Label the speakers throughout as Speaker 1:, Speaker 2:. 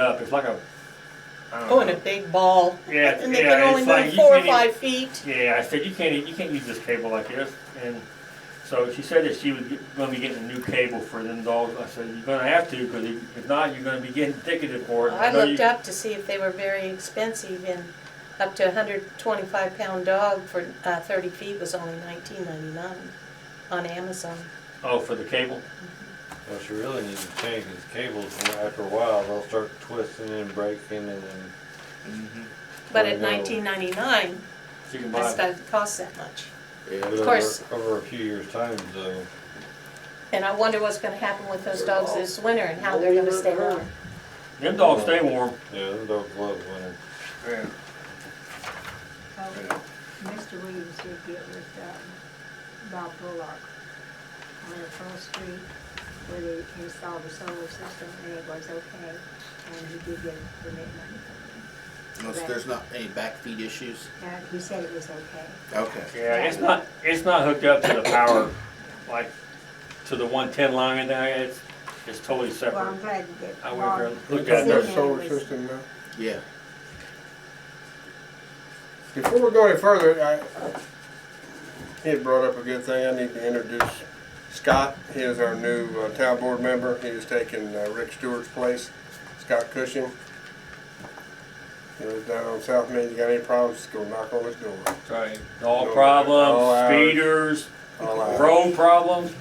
Speaker 1: up. It's like a. I don't
Speaker 2: Oh, and
Speaker 1: know.
Speaker 2: a big ball.
Speaker 1: Yeah,
Speaker 2: And they
Speaker 1: yeah,
Speaker 2: can only
Speaker 1: it's like
Speaker 2: move
Speaker 1: you
Speaker 2: four or
Speaker 1: can't even-
Speaker 2: five feet.
Speaker 1: Yeah, I said you can't you can't use this cable like this, and so she said that she was going to be getting a new cable for them dogs. I said you're going to have to because if if not, you're going to be getting ticketed for it.
Speaker 2: I
Speaker 1: know
Speaker 2: looked
Speaker 1: you-
Speaker 2: up to see if they were very expensive and up to a hundred twenty-five pound dog for uh, thirty feet was only nineteen ninety-nine on Amazon.
Speaker 1: Oh, for the cable.
Speaker 3: What you really need to change is cables, and after a while, they'll start twisting and breaking and then.
Speaker 2: Mm-hmm. But
Speaker 3: I
Speaker 2: at
Speaker 3: know.
Speaker 2: nineteen ninety-nine,
Speaker 1: So you can buy.
Speaker 2: that's doesn't cost that much.
Speaker 3: Yeah,
Speaker 2: Of course.
Speaker 3: Over a few years' time, though.
Speaker 2: And I wonder what's gonna happen with those dogs this winter and how they're gonna stay warm.
Speaker 1: Them dogs stay warm.
Speaker 3: yeah, them dogs love winter.
Speaker 1: Yeah.
Speaker 4: Oh, Mr. Williams did get with um, Bob Bullock on the Pearl Street where they installed the solar system and it was okay. And he did get permit money from
Speaker 5: Unless there's not any back feed issues.
Speaker 4: them. And he said it was okay.
Speaker 5: Okay.
Speaker 1: Yeah, it's not it's not hooked up to the power, like to the 110 line and that. It's it's totally
Speaker 4: Well,
Speaker 1: separate.
Speaker 4: I'm glad that
Speaker 1: I
Speaker 4: Bob.
Speaker 1: went there and looked
Speaker 4: was
Speaker 1: at
Speaker 4: in
Speaker 1: their
Speaker 6: Their
Speaker 4: there
Speaker 6: solar
Speaker 4: was-
Speaker 6: system now.
Speaker 5: Yeah.
Speaker 6: Before we go any further, I, he had brought up a good thing. I need to introduce Scott. He is our new uh, town board member. He is taking uh, Rick Stewart's place, Scott Cushing. He lives down on South Main. You got any problems, just go knock on his door.
Speaker 1: Right. Dog
Speaker 6: No, all
Speaker 1: problems,
Speaker 6: ours.
Speaker 1: speeders,
Speaker 6: All out.
Speaker 1: road problems.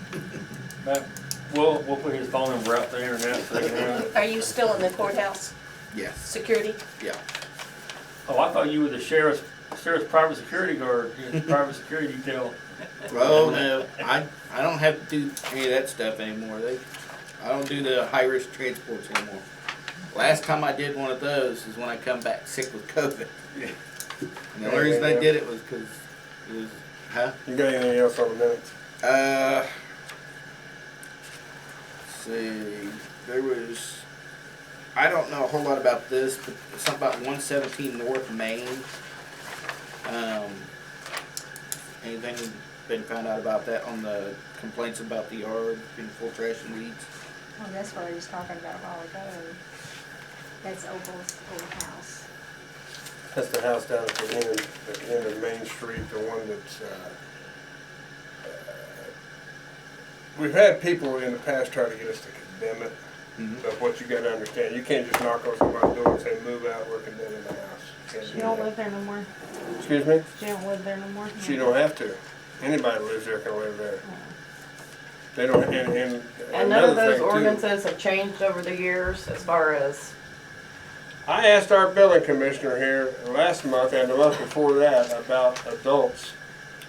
Speaker 1: But we'll we'll put his phone number out there and that. So they can have it.
Speaker 2: Are you still in the courthouse,
Speaker 5: Yes.
Speaker 2: security?
Speaker 5: Yeah.
Speaker 1: Oh, I thought you were the sheriff's, sheriff's private security guard, your private security detail.
Speaker 5: Well, no, I I don't have to do any of that stuff anymore. They, I don't do the high risk transports anymore. Last time I did one of those is when I come back sick with COVID. And the only reason I did it was because it was, huh?
Speaker 6: You got anything else on the minutes?
Speaker 5: Uh, let's see, there was, I don't know a whole lot about this, but something about one seventeen North Main. Um, anything been found out about that on the complaints about the yard being full of trash and weeds?
Speaker 4: Well, that's what I was talking about a while ago. That's Opal's old house.
Speaker 6: That's the house down at the end, of- the end of Main Street, the one that's, uh, uh, we've had people in the past try to get us to condemn it. So what you gotta understand, you can't just knock on somebody's door and say, move out, we're condemning the house. You can't
Speaker 7: She
Speaker 6: do
Speaker 7: don't
Speaker 6: that.
Speaker 7: live there no more.
Speaker 6: Excuse me?
Speaker 7: She don't live there no more.
Speaker 6: She don't have to. Anybody who lives there can live there. They don't, and, and
Speaker 7: And none of
Speaker 6: another
Speaker 7: those
Speaker 6: thing too.
Speaker 7: ordinances have changed over the years as far as,
Speaker 6: I asked our building commissioner here last month and the month before that about adults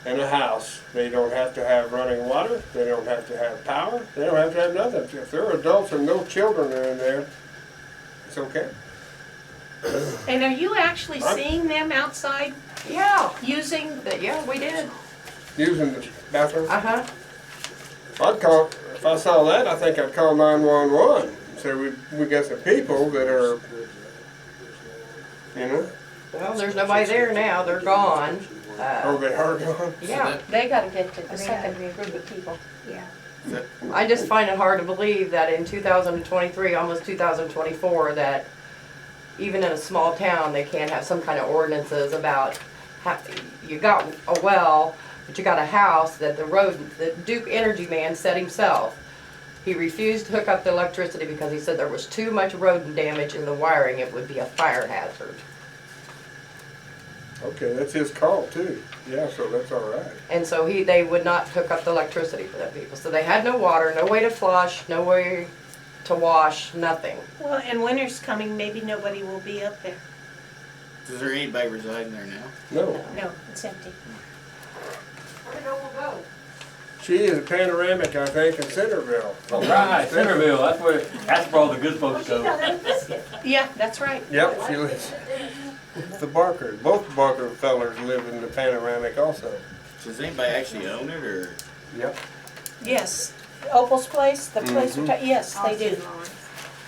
Speaker 6: in a house. They don't have to have running water, they don't have to have power, they don't have to have nothing. If they're adults and no children are in there, it's okay.
Speaker 2: And are you actually
Speaker 6: I'm-
Speaker 2: seeing them outside
Speaker 7: yeah,
Speaker 2: using,
Speaker 7: but yeah, we did.
Speaker 6: Using the bathroom.
Speaker 7: Uh-huh.
Speaker 6: I'd call, if I saw that, I think I'd call nine-one-one. Say, we, we got some people that are, you know,
Speaker 7: Well, there's nobody there now. They're gone.
Speaker 6: oh,
Speaker 7: Uh,
Speaker 6: they are gone.
Speaker 7: yeah.
Speaker 2: they gotta get to the
Speaker 4: They
Speaker 2: second
Speaker 4: gotta get-
Speaker 2: group of people.
Speaker 4: Yeah.
Speaker 7: I just find it hard to believe that in 2023, almost 2024, that even in a small town, they can't have some kind of ordinances about, ha- you got a well, but you got a house that the road, the Duke Energy man said himself. He refused to hook up the electricity because he said there was too much rodent damage in the wiring, it would be a fire hazard.
Speaker 6: Okay, that's his call too. Yeah, so that's all right.
Speaker 7: And so he, they would not hook up the electricity for them people. So they had no water, no way to flush, no way to wash, nothing.
Speaker 2: Well, and winter's coming, maybe nobody will be up there.
Speaker 5: Is there anybody residing there now?
Speaker 6: No.
Speaker 2: No, it's empty.
Speaker 7: Where'd Noble go?
Speaker 6: She is a panoramic, I think, in Centerville.
Speaker 1: All right, Centerville, that's where, that's where all the good folks go.
Speaker 2: Yeah, that's right.
Speaker 6: Yep, she lives. The Barker, both Barker fellers live in the panoramic also.
Speaker 5: Does anybody actually own it or?
Speaker 6: Yep.
Speaker 2: Yes, Opal's place, the place, we're ta- yes, they
Speaker 4: Austin
Speaker 2: do.
Speaker 4: Lawrence.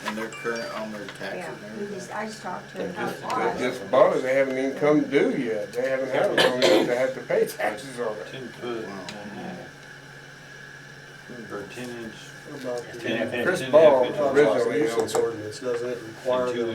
Speaker 5: And they're current on their taxes
Speaker 4: Yeah,
Speaker 5: and
Speaker 4: we
Speaker 5: everything?
Speaker 4: just, I just talked to
Speaker 6: They
Speaker 4: him.
Speaker 6: just,
Speaker 4: about it.
Speaker 6: they just bought it, they haven't even come due yet. They haven't had it long enough to have to pay taxes on it.
Speaker 3: Ten foot. uh,
Speaker 5: Wow.
Speaker 3: Or ten inch.
Speaker 6: Chris uh, Ball originally owned it.
Speaker 8: ordinance, doesn't it require
Speaker 3: And two